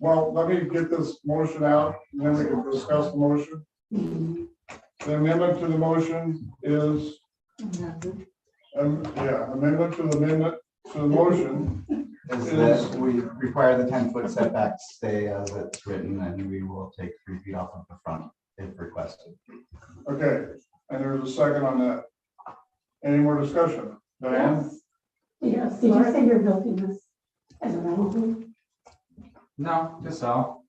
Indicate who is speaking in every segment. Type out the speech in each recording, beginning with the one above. Speaker 1: Well, let me get this motion out, and then we can discuss the motion. The amendment to the motion is, um, yeah, amendment to the amendment to the motion.
Speaker 2: Is that we require the ten foot setback to stay as it's written and we will take three feet off of the front if requested.
Speaker 1: Okay, and there's a second on that. Any more discussion? Diane?
Speaker 3: Yes, did you say you're building this as a rental? home?
Speaker 4: No, to sell.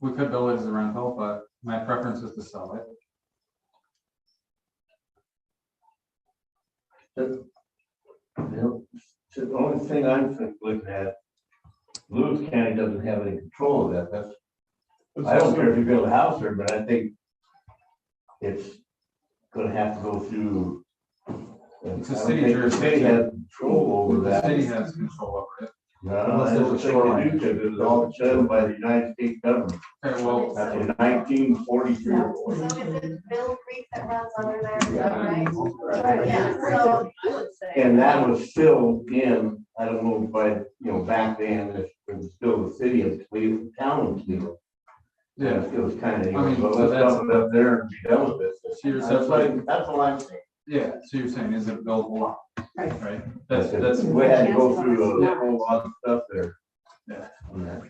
Speaker 4: We could build it as a rental, but my preference is to sell it.
Speaker 5: The the only thing I'm think- looking at, Lewis County doesn't have any control of that, that's, I don't care if you build a house there, but I think it's gonna have to go through.
Speaker 4: It's a
Speaker 5: I don't think the
Speaker 4: city
Speaker 5: City
Speaker 4: jurisdiction.
Speaker 5: has control over
Speaker 4: The
Speaker 5: that.
Speaker 4: city has control over it.
Speaker 5: No, I don't
Speaker 2: Unless there's a
Speaker 5: think they
Speaker 2: shoreline.
Speaker 5: do, because it was all done by the United States government
Speaker 4: Okay, well,
Speaker 6: That's
Speaker 5: in nineteen forty-three.
Speaker 6: So is it Bill Creek that runs under there, is that right?
Speaker 5: Yeah.
Speaker 6: Yeah, so I would say,
Speaker 5: And that was still in, I don't know, but, you know, back then, it was still the city of Cleveland, town of Cleveland.
Speaker 4: yeah,
Speaker 5: Yeah, it was kind of,
Speaker 4: I mean,
Speaker 5: well,
Speaker 4: so
Speaker 5: let's
Speaker 4: that's-
Speaker 5: dump it up there and be done with this.
Speaker 4: So you're
Speaker 5: That's
Speaker 4: saying-
Speaker 5: like, that's all I'm saying.
Speaker 4: yeah. So you're saying is it buildable lot?
Speaker 3: Right.
Speaker 4: Right? That's,
Speaker 5: it.
Speaker 4: that's,
Speaker 5: We had to go through a whole lot of stuff there.
Speaker 4: Yeah.
Speaker 5: Yeah.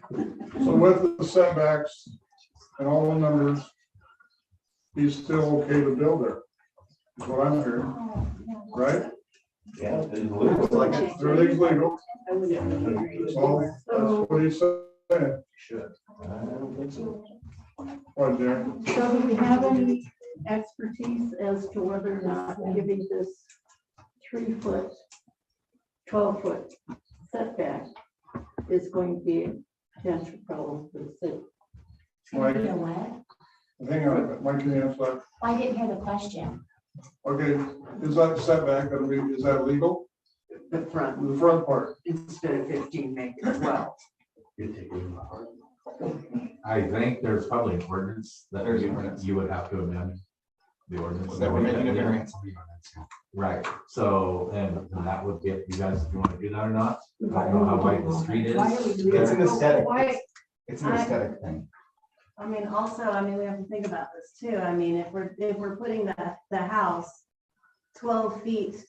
Speaker 1: So with the setbacks and all the numbers, he's still okay to build there. Is what I'm hearing, right?
Speaker 5: Yeah. it's legal.
Speaker 2: It's like a-
Speaker 1: Everything's legal, so that's what he said.
Speaker 5: Should. I don't think so.
Speaker 1: What, Darren?
Speaker 3: So do we have any expertise as to whether or not giving this three foot, twelve foot setback is going to be a potential problem for the city?
Speaker 1: Mike,
Speaker 7: You know what?
Speaker 1: hang on, Mike can answer that.
Speaker 7: I didn't hear the question.
Speaker 1: Okay, is that setback, gonna be- is that legal?
Speaker 8: the front
Speaker 1: The front part,
Speaker 8: instead of fifteen, make it twelve.
Speaker 5: You take it in my heart.
Speaker 2: I think there's probably an ordinance that
Speaker 4: There's
Speaker 2: you,
Speaker 4: ordinance.
Speaker 2: you would have to amend the ordinance.
Speaker 4: That we're making a variance
Speaker 2: Right, so, and and that would get, you guys, if you want to do that or not, I don't know how wide the street is.
Speaker 3: Why are we doing
Speaker 2: It's
Speaker 3: that?
Speaker 2: an aesthetic,
Speaker 6: why,
Speaker 2: it's an
Speaker 6: I-
Speaker 2: aesthetic thing.
Speaker 6: I mean, also, I mean, we have to think about this too, I mean, if we're, if we're putting the, the house twelve feet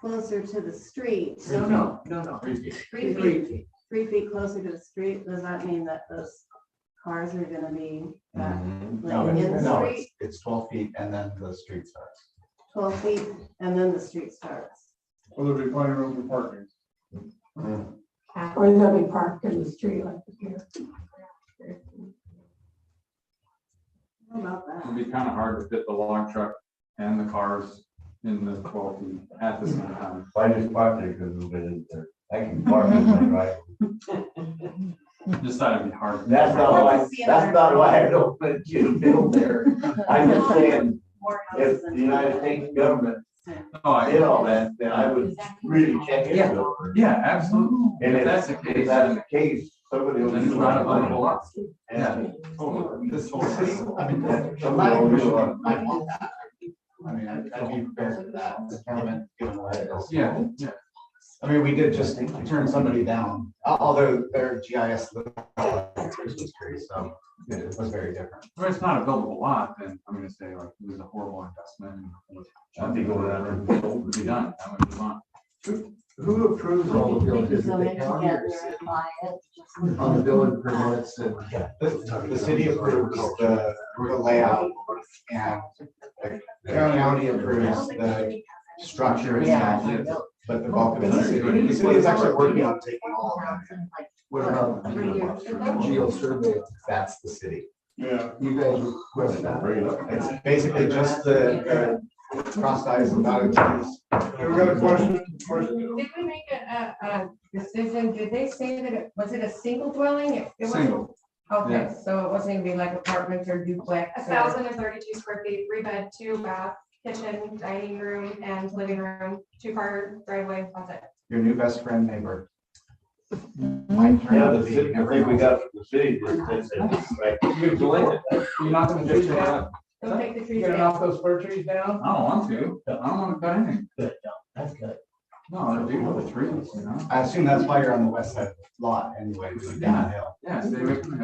Speaker 6: closer to the street,
Speaker 8: No, no, no, no.
Speaker 6: three feet,
Speaker 8: Three feet.
Speaker 6: three feet closer to the street, does that mean that those cars are gonna be back
Speaker 2: Mhm.
Speaker 6: like,
Speaker 2: No,
Speaker 6: in
Speaker 2: it's-
Speaker 6: the
Speaker 2: no,
Speaker 6: street?
Speaker 2: it's- it's twelve feet and then the street starts.
Speaker 6: twelve feet and then the street starts?
Speaker 1: will there be plenty of room for parking?
Speaker 3: Or they'll be parked in the street like here.
Speaker 6: How about that?
Speaker 4: it'd be kind of hard to fit the log truck and the cars in the twelve feet at the same time.
Speaker 5: If I just parked there because we in there. I can park in my right.
Speaker 4: Just thought it'd be hard.
Speaker 5: That's not
Speaker 6: I'd like
Speaker 5: why,
Speaker 6: to see another-
Speaker 5: that's not why I don't let you build there. I'm just saying,
Speaker 6: More
Speaker 5: if
Speaker 6: houses
Speaker 5: the
Speaker 6: than-
Speaker 5: United States government
Speaker 4: No, Oh, I
Speaker 5: did all that, then I would really check
Speaker 4: Yeah.
Speaker 5: into it.
Speaker 4: Yeah, absolutely.
Speaker 5: And
Speaker 4: If
Speaker 5: if
Speaker 4: that's the
Speaker 5: If
Speaker 4: case,
Speaker 5: that's
Speaker 4: then
Speaker 5: the case, somebody will.
Speaker 4: it's not a buildable lot.
Speaker 5: Yeah.
Speaker 4: Totally. This whole thing.
Speaker 2: I mean, that's-
Speaker 5: Somebody will do it.
Speaker 2: I mean, I'd I'd be prepared for that, the comment, given what it is.
Speaker 4: Yeah, yeah.
Speaker 2: I mean, we did just turn somebody down, al- although their GIS, was- so it was very different.
Speaker 4: If it's not a buildable lot, then I'm gonna say like, it was a horrible investment.
Speaker 5: I'd be going out there.
Speaker 4: Would be done, I would move on.
Speaker 2: Who approves all the villages?
Speaker 7: So they together and buy it.
Speaker 2: On the building permits and the, the city approves the, the layout and the the county approves the structure itself, but the bulk of it, is city. the city is actually working on taking all of that.
Speaker 7: What about the minimum?
Speaker 2: Geo survey, that's the city.
Speaker 1: Yeah,
Speaker 2: You guys request that. It's basically just the uh, crossed eyes and dotted Ts.
Speaker 1: Okay, we got a question, question,
Speaker 9: Did we make a, a, a decision, did they say that it, was it a single dwelling? It- it wasn't-
Speaker 4: Single,
Speaker 9: Okay,
Speaker 4: yeah.
Speaker 9: so it wasn't gonna be like apartments or duplex
Speaker 10: A
Speaker 9: or,
Speaker 10: thousand and thirty-two square feet, three bed, two bath, kitchen, dining room, and living room, two car driveway, that's it.
Speaker 2: Your new best friend neighbor.
Speaker 5: Yeah, the city, I think we got from the city, just said, right.
Speaker 4: You're delaying it. You're not gonna do that.
Speaker 9: don't take the trees
Speaker 8: Get it
Speaker 9: down.
Speaker 8: off those fir trees down?
Speaker 4: I don't want to. I don't want to cut anything.
Speaker 5: That's good.
Speaker 4: No, it'd be with the trees, you know?
Speaker 2: I assume that's why you're on the west side of the lot anyway, it's downhill.
Speaker 4: Yeah, stay away from the